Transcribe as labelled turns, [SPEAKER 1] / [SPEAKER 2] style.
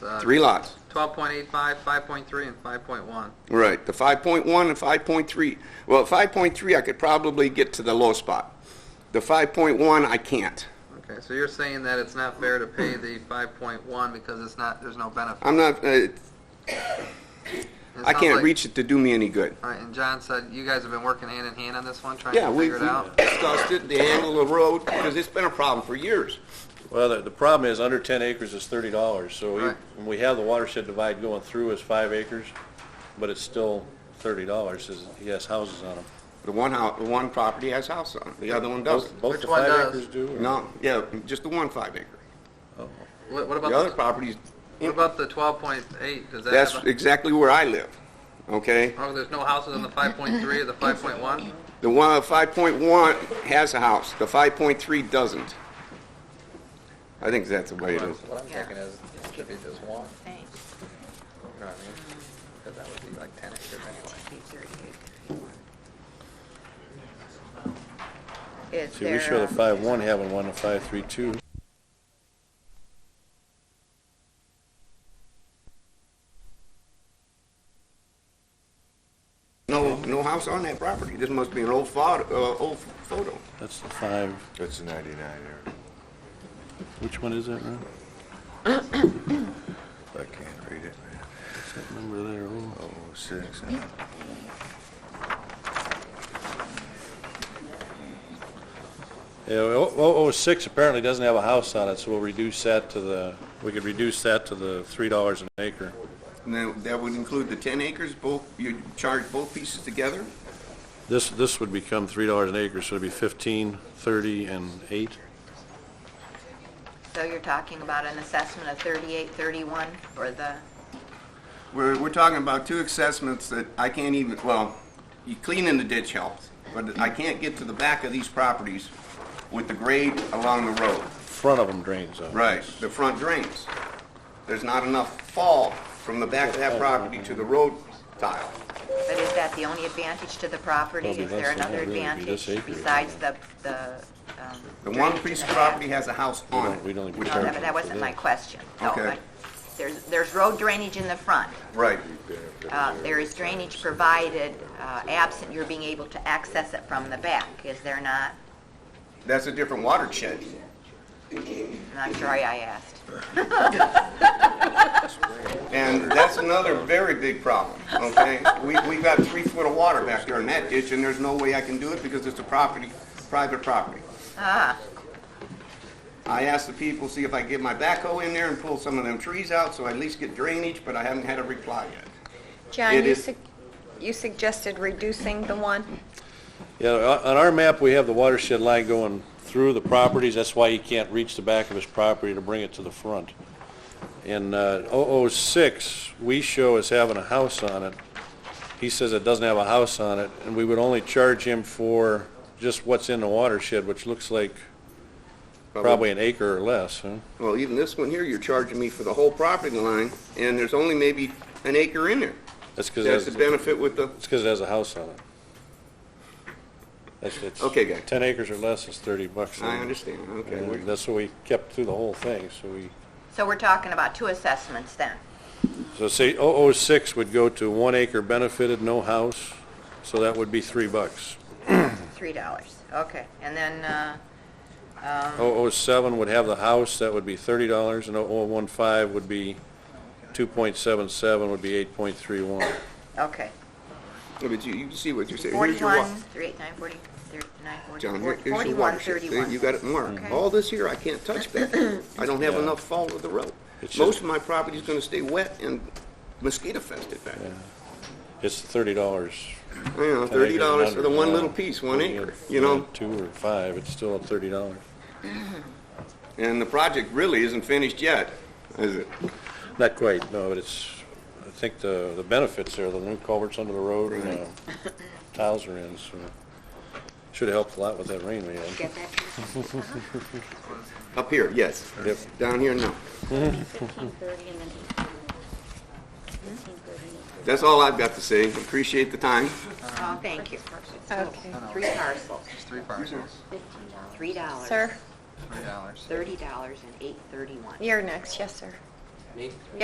[SPEAKER 1] Uh,
[SPEAKER 2] Three lots.
[SPEAKER 1] 12.85, 5.3, and 5.1.
[SPEAKER 2] Right, the 5.1 and 5.3. Well, 5.3, I could probably get to the low spot. The 5.1, I can't.
[SPEAKER 1] Okay, so you're saying that it's not fair to pay the 5.1 because it's not, there's no benefit?
[SPEAKER 2] I'm not, uh,
[SPEAKER 1] It
[SPEAKER 2] I
[SPEAKER 1] sounds
[SPEAKER 2] can't
[SPEAKER 1] like-
[SPEAKER 2] reach it to do me any good.
[SPEAKER 1] All right, and John said you guys have been working hand in hand on this one, trying
[SPEAKER 2] Yeah,
[SPEAKER 1] to
[SPEAKER 2] we
[SPEAKER 1] figure it
[SPEAKER 2] we
[SPEAKER 1] out?
[SPEAKER 2] discussed it, the angle of the road, because it's been a problem for years.
[SPEAKER 3] Well, the, the problem is, under ten acres is thirty dollars, so we,
[SPEAKER 1] Right.
[SPEAKER 3] when we have the watershed divide going through is five acres, but it's still thirty dollars, is, he has houses on them.
[SPEAKER 2] The one house, the one property has house on it, the other one doesn't.
[SPEAKER 3] Both
[SPEAKER 1] Which
[SPEAKER 3] the
[SPEAKER 1] one
[SPEAKER 3] five
[SPEAKER 1] does?
[SPEAKER 3] acres do? or-
[SPEAKER 2] No, yeah, just the one five acre.
[SPEAKER 1] What what
[SPEAKER 2] The other
[SPEAKER 1] about, the-
[SPEAKER 2] properties,
[SPEAKER 1] what about the 12.8? Does that
[SPEAKER 2] that's
[SPEAKER 1] have, a-
[SPEAKER 2] exactly where I live, okay?
[SPEAKER 1] oh, there's no houses on the 5.3 or the 5.1?
[SPEAKER 2] The one, 5.1 has a house, the 5.3 doesn't. I think that's the way it is.
[SPEAKER 1] What I'm
[SPEAKER 4] Yeah. thinking
[SPEAKER 1] is, it should be just one,
[SPEAKER 4] Thanks.
[SPEAKER 1] you know what I mean? Because that would be like 10 acres anyway.
[SPEAKER 4] Is
[SPEAKER 3] See, we show
[SPEAKER 4] there,
[SPEAKER 3] the
[SPEAKER 4] um,
[SPEAKER 3] five one having one, the five three two.
[SPEAKER 2] No, no house on that property. This must be an old photo, uh, old photo.
[SPEAKER 3] That's the five,
[SPEAKER 5] That's the 99 area.
[SPEAKER 3] which one is that, Ron?
[SPEAKER 5] I can't read it, man.
[SPEAKER 3] What's that number there? Oh,
[SPEAKER 5] Oh, six. uh,
[SPEAKER 3] Yeah, oh, oh, oh, six apparently doesn't have a house on it, so we'll reduce that to the, we could reduce that to the three dollars an acre.
[SPEAKER 2] Now, that would include the 10 acres, both, you charge both pieces together?
[SPEAKER 3] This, this would become three dollars an acre, so it'd be fifteen, thirty, and eight.
[SPEAKER 4] so you're talking about an assessment of thirty-eight, thirty-one for the,
[SPEAKER 2] We're, we're talking about two assessments that I can't even, well, you clean in the ditch helps, but I can't get to the back of these properties with the grade along the road.
[SPEAKER 3] Front of them drains out.
[SPEAKER 2] Right, the front drains. There's not enough fall from the back of that property to the road tile.
[SPEAKER 4] but is that the only advantage to the property?
[SPEAKER 3] Probably
[SPEAKER 4] Is there
[SPEAKER 3] that's the
[SPEAKER 4] another
[SPEAKER 3] one, really, be
[SPEAKER 4] advantage
[SPEAKER 3] this acre.
[SPEAKER 4] besides the, the, um?
[SPEAKER 2] The one
[SPEAKER 4] drainage in
[SPEAKER 2] piece
[SPEAKER 4] the
[SPEAKER 2] of
[SPEAKER 4] back?
[SPEAKER 2] property has a house on
[SPEAKER 3] We
[SPEAKER 2] it.
[SPEAKER 3] don't even
[SPEAKER 2] which
[SPEAKER 4] No,
[SPEAKER 3] charge
[SPEAKER 2] are-
[SPEAKER 4] that- that wasn't my question. No,
[SPEAKER 2] Okay.
[SPEAKER 4] but There's, there's road drainage in the front.
[SPEAKER 2] Right,
[SPEAKER 4] Uh, There is drainage provided, uh, absent you're being able to access it from the back, is there not?
[SPEAKER 2] that's a different watershed.
[SPEAKER 4] I'm not sure I asked.
[SPEAKER 2] And that's another very big problem, okay? We, we've got three foot of water back there in that ditch, and there's no way I can do it because it's a property, private property.
[SPEAKER 4] Ah,
[SPEAKER 2] I asked the people, see if I get my backhoe in there and pull some of them trees out so I at least get drainage, but I haven't had a reply yet. It
[SPEAKER 6] John, you
[SPEAKER 2] is-
[SPEAKER 6] sug- you suggested reducing the one?
[SPEAKER 3] Yeah, on- on our map, we have the watershed line going through the properties, that's why he can't reach the back of his property to bring it to the front. In uh, 006, we show as having a house on it. He says it doesn't have a house on it, and we would only charge him for just what's in the watershed, which looks like probably an acre or less, huh?
[SPEAKER 2] Well, even this one here, you're charging me for the whole property line, and there's only maybe an acre in there. That's
[SPEAKER 3] That's because,
[SPEAKER 2] the
[SPEAKER 3] it's
[SPEAKER 2] benefit with the,
[SPEAKER 3] because it has a house on it. That's, it's.
[SPEAKER 2] Okay, guy.
[SPEAKER 3] 10 acres or less is 30 bucks.
[SPEAKER 2] I understand, okay.
[SPEAKER 3] And
[SPEAKER 2] we're-
[SPEAKER 3] that's what we kept through the whole thing, so we,
[SPEAKER 4] so we're talking about two assessments then?
[SPEAKER 3] so say 006 would go to one acre benefited, no house, so that would be three bucks.
[SPEAKER 4] Three dollars, okay. And then, uh,
[SPEAKER 3] 007 would have the house, that would be thirty dollars, and 015 would be 2.77, would be 8.31.
[SPEAKER 4] okay.
[SPEAKER 2] But you, you see what you're saying. Here's your wa-
[SPEAKER 4] Forty-one, three, eight, nine, forty, thirty, nine, forty,
[SPEAKER 2] John,
[SPEAKER 4] forty-
[SPEAKER 2] here- here's your
[SPEAKER 4] forty-one,
[SPEAKER 2] watershed. See,
[SPEAKER 4] thirty-one.
[SPEAKER 2] You got it marked.
[SPEAKER 4] Okay.
[SPEAKER 2] All this here, I can't touch back. I don't have
[SPEAKER 3] Yeah.
[SPEAKER 2] enough fall of the road.
[SPEAKER 3] It's
[SPEAKER 2] Most
[SPEAKER 3] just-
[SPEAKER 2] of my property's gonna stay wet and mosquito fested back. there.
[SPEAKER 3] It's thirty dollars.
[SPEAKER 2] You know, thirty dollars for the one little piece, one acre, you know?
[SPEAKER 3] Two or five, it's still at thirty dollars.
[SPEAKER 2] And the project really isn't finished yet, is it?
[SPEAKER 3] Not quite, no, but it's, I think the, the benefits are the new culverts under the road and the tiles are in, so. Should've helped a lot with that rain we had.
[SPEAKER 4] Get that?
[SPEAKER 2] Up here, yes.
[SPEAKER 3] Yep.
[SPEAKER 2] Down here, no.
[SPEAKER 7] Fifteen thirty and then eight thirty. Fifteen thirty and eight thirty.
[SPEAKER 2] That's all I've got to say. Appreciate the time.
[SPEAKER 4] Oh, thank you.
[SPEAKER 6] Okay.
[SPEAKER 4] Three parcels,
[SPEAKER 1] There's three parcels,
[SPEAKER 7] Fifteen dollars.
[SPEAKER 4] three dollars.
[SPEAKER 6] Sir,
[SPEAKER 1] $3.
[SPEAKER 4] Thirty dollars and eight thirty-one.
[SPEAKER 6] you're next, yes, sir.